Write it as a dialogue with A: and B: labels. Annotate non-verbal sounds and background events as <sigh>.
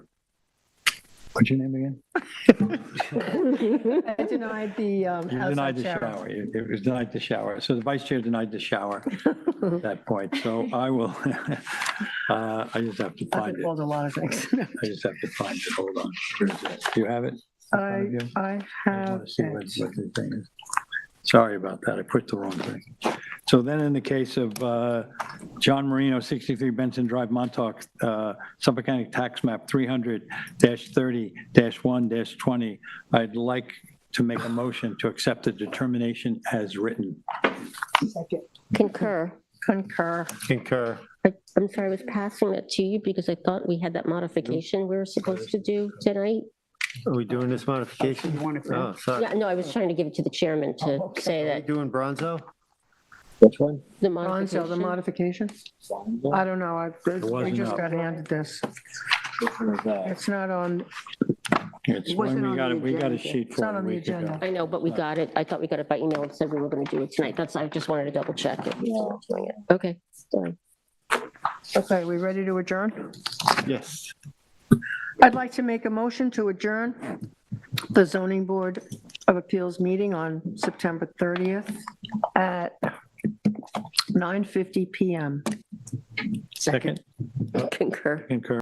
A: What's your name again?
B: I denied the um,
A: You denied
B: outside
A: the
B: shower.
A: shower. It it was denied the shower. So the vice chair denied the shower at that point. So I will, <laughs> uh, I just have to
B: I've
A: find
B: been
A: it.
B: called a lot of
A: <laughs>
B: things.
A: I just have to find it. Hold on. Where is it? Do you have it?
B: I, I
A: I
B: have
A: want to see what
B: it.
A: what the thing is. Sorry about that. I put the wrong thing. So then in the case of uh, John Marino, 63 Benson Drive, Montauk, uh, Suffolk County Tax Map 300-30-1-20, I'd like to make a motion to accept the determination as written.
B: Second.
C: Concur.
B: Concur.
D: Concur.
C: I- I'm sorry, I was passing that to you because I thought we had that modification we were supposed to do tonight.
D: Are we doing this modification? Oh, sorry.
C: Yeah, no, I was trying to give it to the chairman to say
D: Are we
C: that
D: doing Bronzo?
A: Which one?
C: the
B: Gonzo, the
C: modification.
B: modification? I don't know. I, we
A: wasn't
B: just
A: up.
B: got handed this. It's not on,
A: It's when we got, it- we got a sheet
B: it's
A: for
B: not
A: it a
B: on the
A: week ago.
B: agenda.
C: I know, but we got it. I thought we got it by email and said we were going to do it tonight. That's, I just wanted to double check it. Okay. sorry.
B: Okay, we ready to adjourn?
D: Yes.
B: I'd like to make a motion to adjourn the zoning board of appeals meeting on September 30th at 9:50 PM.
A: Second,
C: Concur.
A: concur.